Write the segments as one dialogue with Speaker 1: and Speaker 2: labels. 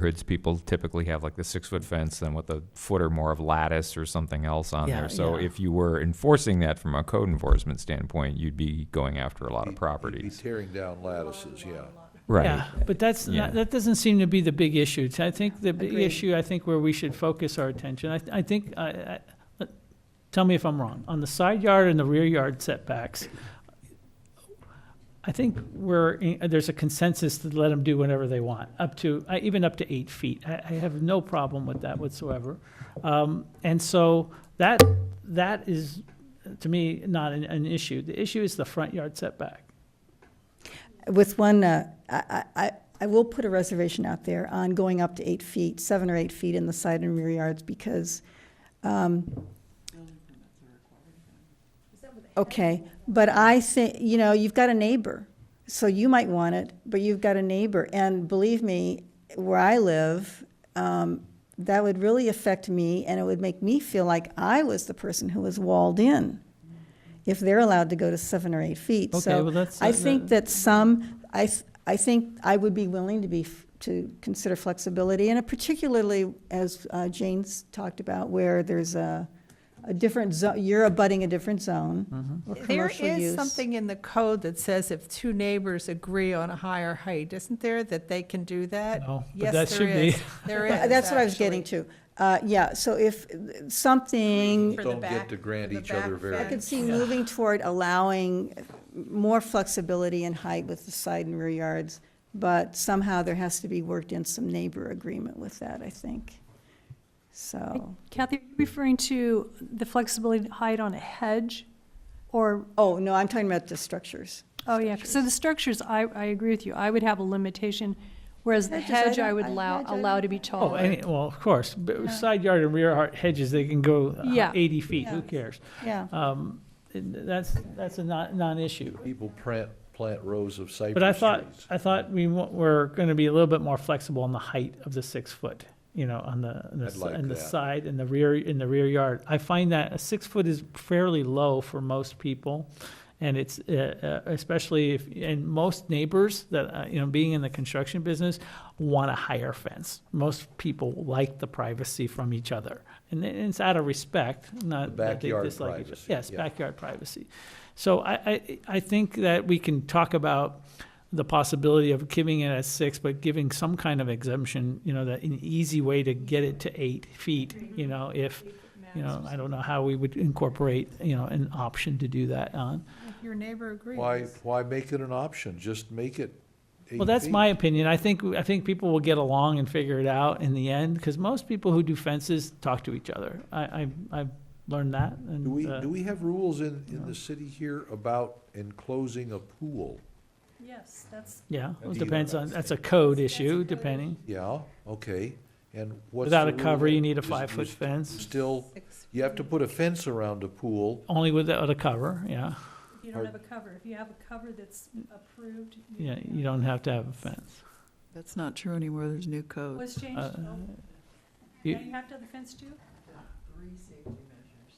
Speaker 1: Hoods people typically have like the six foot fence and with a foot or more of lattice or something else on
Speaker 2: Yeah,
Speaker 1: there. So
Speaker 2: yeah.
Speaker 1: if you were enforcing that from a code enforcement standpoint, you'd be going after a lot of
Speaker 3: You'd be
Speaker 1: properties.
Speaker 3: tearing down lattices, yeah.
Speaker 1: Right.
Speaker 2: Yeah, but that's,
Speaker 1: Yeah.
Speaker 2: not- that doesn't seem to be the big issue. So I think the big
Speaker 4: Agreed.
Speaker 2: issue, I think where we should focus our attention, I, I think, I, I, let- tell me if I'm wrong, on the side yard and the rear yard setbacks, I think we're, in- there's a consensus to let them do whatever they want, up to, I- even up to eight feet. I, I have no problem with that whatsoever. Um, and so that, that is, to me, not an, an issue. The issue is the front yard setback.
Speaker 4: With one, uh, I, I, I- I will put a reservation out there on going up to eight feet, seven or eight feet in the side and rear yards because, um, okay, but I think, you know, you've got a neighbor, so you might want it, but you've got a neighbor. And believe me, where I live, um, that would really affect me and it would make me feel like I was the person who was walled in if they're allowed to go to seven or eight feet.
Speaker 2: Okay,
Speaker 4: So
Speaker 2: well, that's-
Speaker 4: I think that some, I, th- I think I would be willing to be, f- to consider flexibility, and particularly, as uh, Jane's talked about, where there's a, a different zone, you're abutting a different zone. or
Speaker 5: There
Speaker 4: commercial
Speaker 5: is
Speaker 4: use.
Speaker 5: something in the code that says if two neighbors agree on a higher height, isn't there, that they can do that?
Speaker 2: No, but that
Speaker 5: Uh, Yes, there
Speaker 2: should be.
Speaker 5: is. There is,
Speaker 4: Uh, That's what I was getting
Speaker 5: actually.
Speaker 4: to. Uh, Yeah, so if uh, something,
Speaker 5: For the
Speaker 3: Don't get
Speaker 5: back-
Speaker 3: to grant
Speaker 5: for the
Speaker 3: each other
Speaker 5: back
Speaker 3: variance.
Speaker 4: I could
Speaker 5: fence.
Speaker 4: see moving toward allowing more flexibility in height with the side and rear yards, but somehow there has to be worked in some neighbor agreement with that, I think. So,
Speaker 6: Kathy, are you referring to the flexibility to hide on a hedge? Or,
Speaker 4: oh, no, I'm talking about the structures.
Speaker 6: oh yeah, so the structures, I, I agree with you, I would have a limitation, whereas the
Speaker 4: Hedges, I
Speaker 6: hedge I
Speaker 4: don't-
Speaker 6: would
Speaker 4: I-
Speaker 6: allow,
Speaker 4: hedge I
Speaker 6: allow
Speaker 4: don't-
Speaker 6: to be
Speaker 2: Oh,
Speaker 6: taller.
Speaker 2: any, well, of course, but side yard and rear yard hedges, they can go uh,
Speaker 6: Yeah.
Speaker 2: eighty feet,
Speaker 4: Yeah.
Speaker 2: who cares?
Speaker 4: Yeah.
Speaker 2: Um, and that's, that's a non, non-issue.
Speaker 3: People plant, plant rows of cypress trees.
Speaker 2: But I thought, I thought we wa- were gonna be a little bit more flexible on the height of the six foot, you know, on the, on the,
Speaker 3: I'd
Speaker 2: s-
Speaker 3: like
Speaker 2: on the
Speaker 3: that.
Speaker 2: side and the rear, in the rear yard. I find that a six foot is fairly low for most people. And it's, uh, uh, especially if, and most neighbors that, uh, you know, being in the construction business, want a higher fence. Most people like the privacy from each other. And it- it's out of respect, not that they
Speaker 3: Backyard
Speaker 2: dislike each other.
Speaker 3: privacy,
Speaker 2: Yes,
Speaker 3: yeah.
Speaker 2: backyard privacy. So I, I, I think that we can talk about the possibility of giving it at six, but giving some kind of exemption, you know, that an easy way to get it to eight feet, you know, if, you know, I don't know how we would incorporate, you know, an option to do that on.
Speaker 5: If Your neighbor agrees.
Speaker 3: Why, why make it an option? Just make it eight
Speaker 2: Well, that's
Speaker 3: feet.
Speaker 2: my opinion. I think, I think people will get along and figure it out in the end, because most people who do fences talk to each other. I, I, I've learned that, and.
Speaker 3: Do we,
Speaker 2: uh,
Speaker 3: do we have rules in, in the city here about enclosing a pool?
Speaker 6: Yes, that's.
Speaker 3: Uh,
Speaker 2: Yeah,
Speaker 7: Do
Speaker 2: it
Speaker 7: you-
Speaker 2: depends on, that's a code issue, depending.
Speaker 3: Yeah, okay, and what's
Speaker 2: Without
Speaker 3: the
Speaker 2: a cover,
Speaker 3: rule?
Speaker 2: you need a
Speaker 3: Is-
Speaker 2: five-foot
Speaker 3: is-
Speaker 2: fence,
Speaker 3: Still,
Speaker 5: Six.
Speaker 3: you have to put a fence around a pool,
Speaker 2: only without a cover, yeah.
Speaker 6: If you
Speaker 3: don't have
Speaker 6: a cover, if you have a cover that's approved.
Speaker 2: Yeah, you don't have to have a fence.
Speaker 8: That's not true anymore, there's new code.
Speaker 6: Was changed,
Speaker 2: Uh, you-
Speaker 6: have to have the fence too?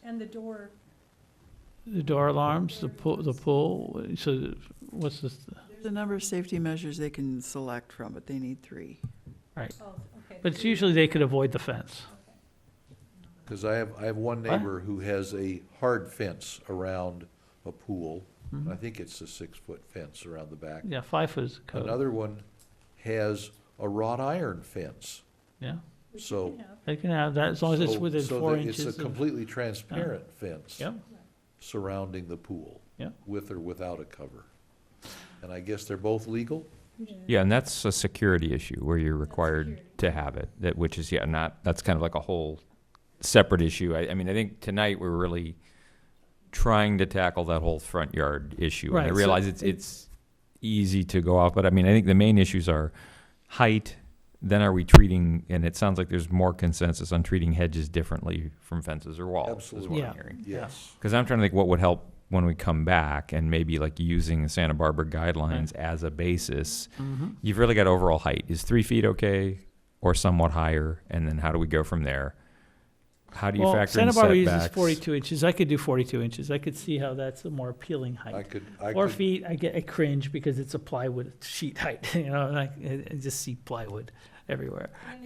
Speaker 6: And the door.
Speaker 2: The door alarms, the pool, the pool, so what's this,
Speaker 8: There's a number of safety measures they can select from, but they need three.
Speaker 6: oh,
Speaker 2: but it's usually they could avoid the fence.
Speaker 3: because I have, I have one neighbor who has a hard fence around a pool.
Speaker 2: Mm-hmm.
Speaker 3: I think it's a six-foot fence around the back.
Speaker 2: Yeah, five foot is code,
Speaker 3: Another one has a wrought iron fence,
Speaker 2: yeah.
Speaker 3: so.
Speaker 2: They can have that, as long as it's
Speaker 3: so-
Speaker 2: within
Speaker 3: so
Speaker 2: four
Speaker 3: that It's
Speaker 2: inches
Speaker 3: a
Speaker 2: of, Uh-huh.
Speaker 3: completely transparent fence.
Speaker 2: yeah,
Speaker 3: Surrounding the pool.
Speaker 2: Yeah.
Speaker 3: With or without a cover. And I guess they're both legal?
Speaker 1: Yeah, and that's a security issue where you're required to have it, that, which is, yeah, not, that's kind of like a whole separate issue. I, I mean, I think tonight we're really trying to tackle that whole front yard issue. And
Speaker 2: Right,
Speaker 1: I
Speaker 2: so
Speaker 1: realize it's, it's easy to go off, but I mean, I think the main issues are height, then are we treating, and it sounds like there's more consensus on treating hedges differently from fences or walls, is
Speaker 3: Absolutely.
Speaker 1: what
Speaker 2: Yeah.
Speaker 1: I'm hearing.
Speaker 2: Yeah.
Speaker 3: Yes.
Speaker 1: Because I'm trying to think what would help when we come back and maybe like using the Santa Barbara guidelines as a basis.
Speaker 3: Mm-hmm.
Speaker 1: You've really got overall height. Is three feet okay or somewhat higher? And then how do we go from there? How do you
Speaker 2: Well,
Speaker 1: factor
Speaker 2: Santa
Speaker 1: in
Speaker 2: Barbara uses
Speaker 1: setbacks?
Speaker 2: forty-two inches, I could do forty-two inches, I could see how that's a more appealing
Speaker 3: I
Speaker 2: height.
Speaker 3: could, I
Speaker 2: Four
Speaker 3: could,
Speaker 2: feet, I get, I cringe because it's a plywood sheet height, you know, and I, I just see plywood. everywhere.